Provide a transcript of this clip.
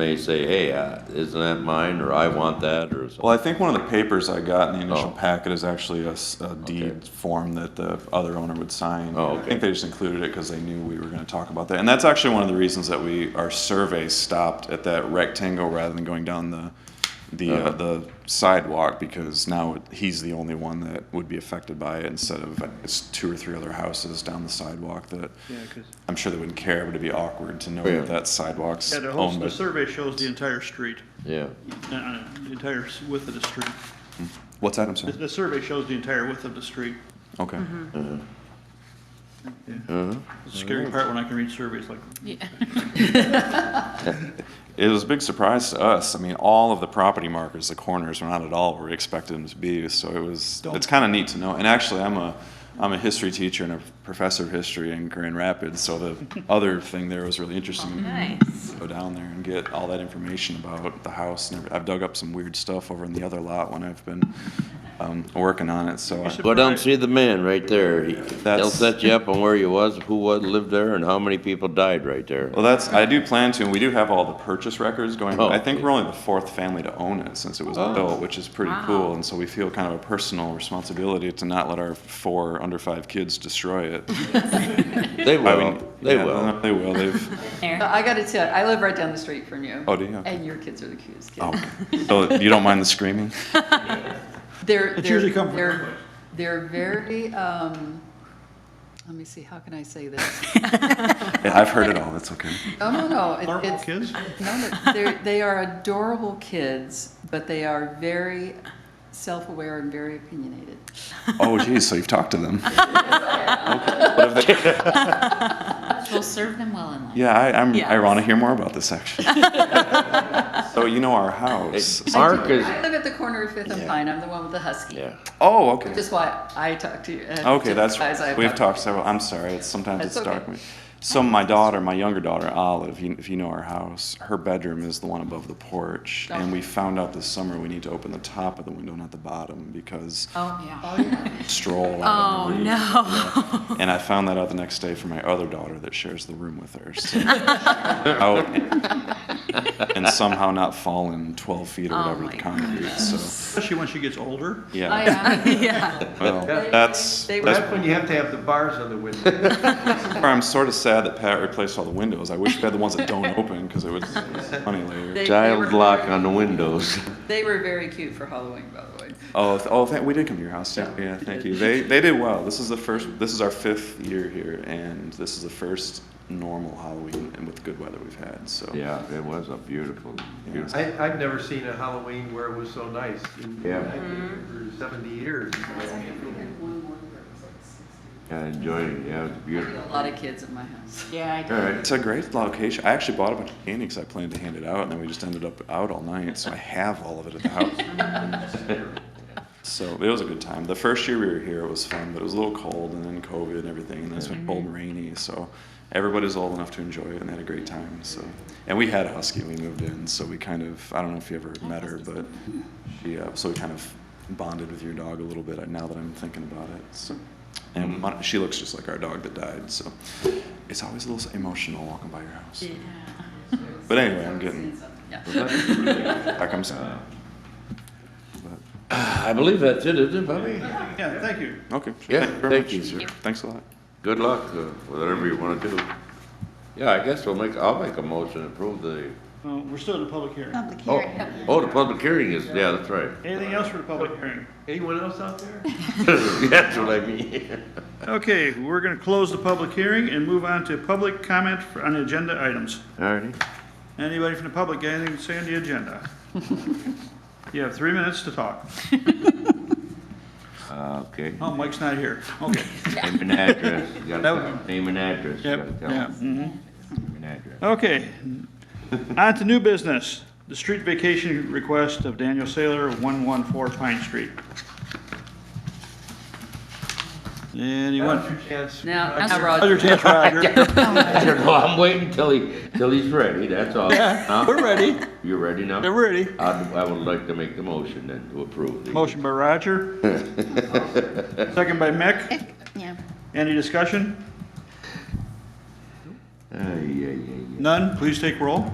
may say, hey, uh, isn't that mine, or I want that, or something. Well, I think one of the papers I got in the initial Oh. packet is actually a s- a deed form that the other owner would sign. Oh, I okay. think they just included it because they knew we were going to talk about that. And that's actually one of the reasons that we, our survey stopped at that rectangle rather than going down the, the, uh, Uh-huh. the sidewalk because now it- he's the only one that would be affected by it instead of, it's two or three other houses down the sidewalk that, Yeah, because, I'm sure they wouldn't care, but it'd be awkward to know Oh, Yeah. that that sidewalk's yeah, the whole, owned by. the survey shows the entire street, Yeah, uh, uh, the entire s- width of the street. What's that, I'm The, sorry? the survey shows the entire width of the street. Okay. Yeah. uh-huh. It's the scary part when I can read surveys like, Yeah. It was a big surprise to us. I mean, all of the property markers, the corners, were not at all where we expected them to be. So it was, it's kind of neat to know. And actually, I'm a, I'm a history teacher and a professor of history in Grand Rapids. So the other thing there was really interesting. Nice. Go down there and get all that information about the house. And every- I've dug up some weird stuff over in the other lot when I've been um, working on it. So I, should- Go down and see the man right there. He- They'll That's- set you up on where you was, who was, lived there, and how many people died right there. Well, that's, I do plan to, and we do have all the purchase records going. Oh. I think we're only the fourth family to own it since it was built, which is pretty Wow. cool. And so we feel kind of a personal responsibility to not let our four under five kids destroy it. They I will, mean, they yeah, will. They will, they've, Uh, I gotta tell you, I live right down the street from you. Oh, do you? Okay. And your kids are the cutest kids. oh, so you don't mind the screaming? They're, It's they're- usually come from they're- that way. They're very, um, let me see, how can I say this? Yeah, I've heard it all, that's okay. Oh, no, no. it- normal it's- kids? No, no, they're, they are adorable kids, but they are very self-aware and very opinionated. Oh geez, so you've talked to them. Okay, What have they, We'll serve them well in life. yeah, I, I'm, Yes. I want to hear more about this actually. So you know our house. It- Mark is, I live at the corner of Fifth and Yeah. Pine. I'm the one with the husky. yeah. Oh, okay. Just why I talk to you. uh, Okay, to that's, the guys I've we've talked to. talked several, I'm sorry, it's, sometimes it's That's dark. okay. So my daughter, my younger daughter, Olive, you- if you know our house, her bedroom is the one above the porch. And we found out this summer we need to open the top of the window, not the bottom, because Oh, yeah. stroll. Oh, out in the no. leaves. Yeah. And I found that out the next day from my other daughter that shares the room with her. so- Out and- And somehow not fallen twelve feet or whatever my the concrete, so, especially when she gets older. I yeah. am. Yeah. Well, They- that's, they- that's That's when you have to have the bars on the window. I'm sort of sad that Pat replaced all the windows. I wish we had the ones that don't open because it was funny later. They- Child they were- lock on the windows. They were very cute for Halloween, by the way. Oh, th- oh, thank, we did come to your house. Yeah, yeah, thank you. They they did well. This is the first. This is our fifth year here, and this is the first normal Halloween and with good weather we've had. So Yeah, it was a beautiful, beautiful. I, I've never seen a Halloween where it was so nice. in- Yeah. I've been here For seventy years. I enjoyed it, yeah, it was beautiful. A lot of kids at my house. Yeah, I do. All right, It's a great location. I actually bought a bunch of candy because I planned to hand it out, and then we just ended up out all night. So I have all of it at the house. so it was a good time. The first year we were here, it was fun, but it was a little cold, and then COVID and everything, and then it's been cold and rainy. So everybody's old enough to enjoy it, and they had a great time. So, and we had a husky when we moved in, so we kind of I don't know if you ever met her, but she uh, so we kind of bonded with your dog a little bit. uh, Now that I'm thinking about it, so. And Mm-hmm. Mon- she looks just like our dog that died, so it's always a little emotional walking by your house. But anyway, I'm getting Yeah. back. I'm sorry. I believe that's it, isn't it, Bobby? Yeah, thank you. Okay. sure. Yeah, Thank very thank much. you, sir. Thanks a lot. Good luck, uh, whatever you wanna do. Yeah, I guess we'll make, I'll make a motion to approve the, Uh, We're still in the public hearing. oh, oh, the public hearing is, yeah, that's right. Anything else for the public hearing? Anyone else out there? That's what I mean. Okay, we're going to close the public hearing and move on to public comment for- on agenda items. All righty. Anybody from the public got anything to say on the agenda? You have three minutes to talk. Uh, okay. Oh, Mike's not here. Okay. Name and address, you gotta That tell, would- name and address, you Yep, gotta tell. yeah. them. mhm. Name and address. Okay, on to new business, the street vacation request of Daniel Saylor, 114 Pine Street. Anyone? Now's your chance. Now, Roger. now Roger. Other chance, Roger. I don't know, I'm waiting till he, till he's ready, that's all. Huh? We're ready, You're ready now? they're ready. I'd- I would like to make the motion then to approve the. Motion by Roger. Second by Mick. Yeah. Any discussion? Ay, ay, ay, None, please take roll.